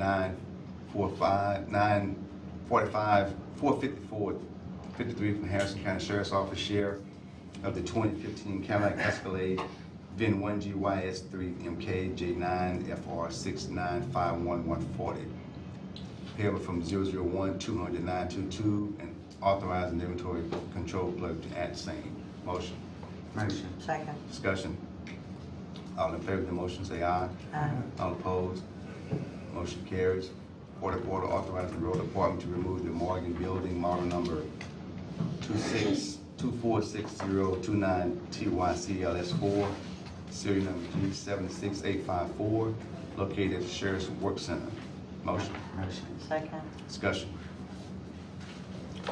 nine, four, five, nine, forty-five, four fifty-four, fifty-three from Harrison County Sheriff's Office share of the twenty fifteen Cadillac Escalade, VIN one G Y S three M K J nine F R six nine five one one forty. Payable from zero zero one two hundred nine two two and authorizing inventory control clerk to add same. Motion. Motion. Second. Discussion. All in favor of the motion, say aye. Aye. All opposed? Motion carries. Order, order authorizing the road department to remove the Morgan Building model number two six, two four six zero two nine TYCLS four, serial number G seven six eight five four, located at the Sheriff's Work Center. Motion, Motion. Second. discussion.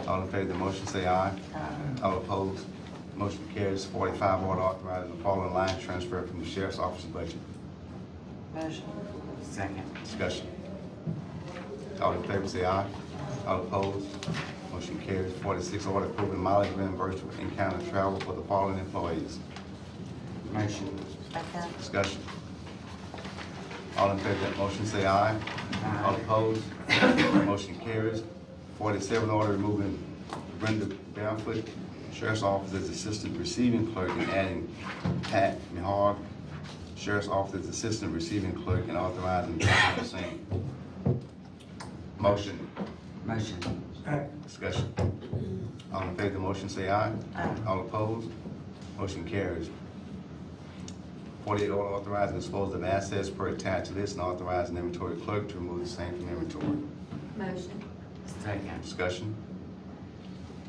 All in favor of the motion, say aye. Aye. All opposed? Motion carries. Forty-five, order authorizing the following line transfer from the Sheriff's Office budget. Motion. Second. Discussion. All in favor say aye. All opposed? Motion carries. Forty-six, order approving mileage reimbursement for in-county travel for the following employees. Motion. Second. Discussion. All in favor of that motion say aye. All opposed? Motion carries. Forty-seven, order removing Brenda Barefoot, Sheriff's Office as Assistant Receiving Clerk and adding Pat Mihar, Sheriff's Office as Assistant Receiving Clerk and authorizing the same. Motion. Motion. Discussion. All in favor of the motion, say aye. Aye. All opposed? Motion carries. Forty-eight, order authorizing disposal of assets per attached list and authorizing inventory clerk to remove the same from inventory. Motion. Second. Discussion.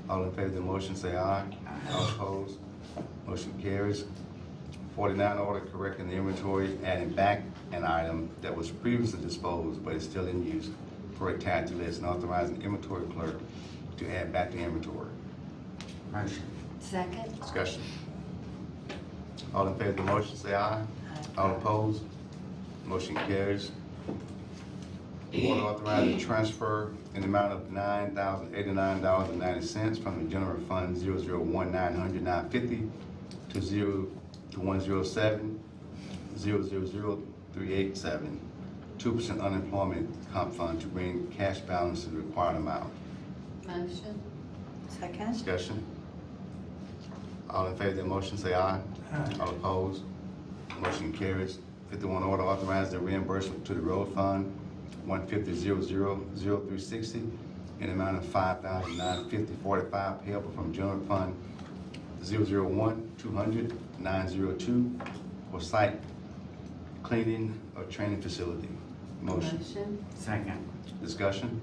All in favor of the motion, say aye. Aye. All opposed? Motion carries. Forty-nine, order correcting the inventory, adding back an item that was previously disposed but is still in use per attached list and authorizing inventory clerk to add back the inventory. Motion. Second. Discussion. All in favor of the motion, say aye. All opposed? Motion carries. Order authorizing transfer in the amount of nine thousand eighty-nine dollars and ninety cents from the general fund zero zero one nine hundred nine fifty to zero, to one zero seven, zero zero zero three eight seven. Two percent unemployment comp fund to bring cash balance to the required amount. Motion. Second. Discussion. All in favor of the motion, say aye. All opposed? Motion carries. Fifty-one, order authorizing the reimbursement to the road fund, one fifty zero zero zero three sixty, in the amount of five thousand nine fifty forty-five payable from general fund zero zero one two hundred nine zero two for site cleaning or training facility. Motion. Second. Discussion?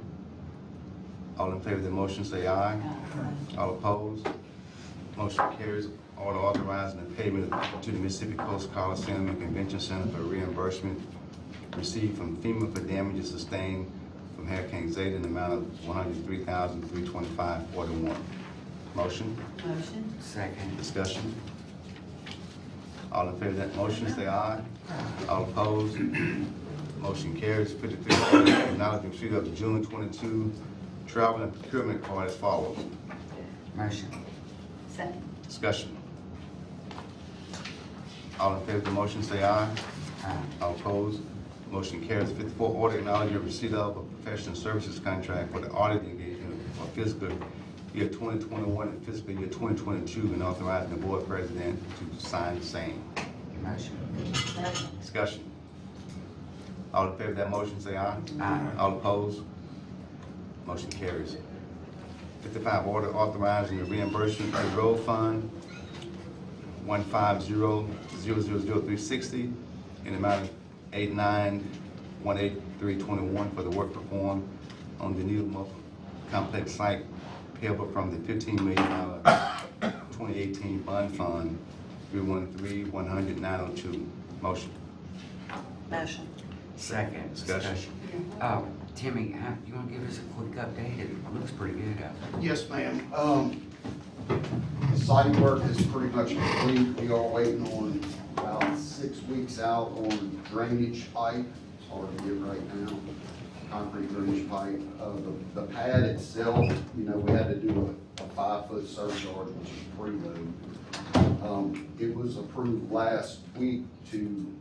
All in favor of the motion, say aye. All opposed? Motion carries. Order authorizing the payment to the Mississippi Coast Coliseum and Convention Center for reimbursement received from FEMA for damages sustained from Hurricane Zeta in the amount of one hundred three thousand three twenty-five forty-one. Motion, Motion. Second. discussion? All in favor of that motion, say aye. All opposed? Motion carries. Fifty-three, order acknowledging receipt of the June twenty-two travel and procurement card as follows. Motion. Second. Discussion. All in favor of the motion, say aye. Aye. All opposed? Motion carries. Fifty-four, order acknowledging receipt of a professional services contract for the audit engagement for fiscal year twenty twenty-one and fiscal year twenty twenty-two, and authorizing the board president to sign the same. Motion. Second. Discussion. All in favor of that motion, say aye. Aye. All opposed? Motion carries. Fifty-five, order authorizing the reimbursement to road fund one five zero zero zero zero three sixty in the amount of eight nine one eight three twenty-one for the work performed on the Needle Muff Complex site payable from the fifteen million dollar twenty eighteen bond fund three one three one hundred nine oh two. Motion. Motion. Second. Discussion. Oh, Timmy, uh, you wanna give us a quick update? It looks pretty good uh, out there. Yes, ma'am. Um, the site work is pretty much complete. We are waiting on about six weeks out on drainage pipe. It's hard to get right now. Concrete drainage pipe. Uh, the, the pad itself, you know, we had to do a, a five-foot surcharge, which is pretty low. Um, it was approved last week to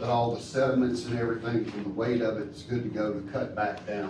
But all the sediments and everything from the weight of it's good to go to cut back down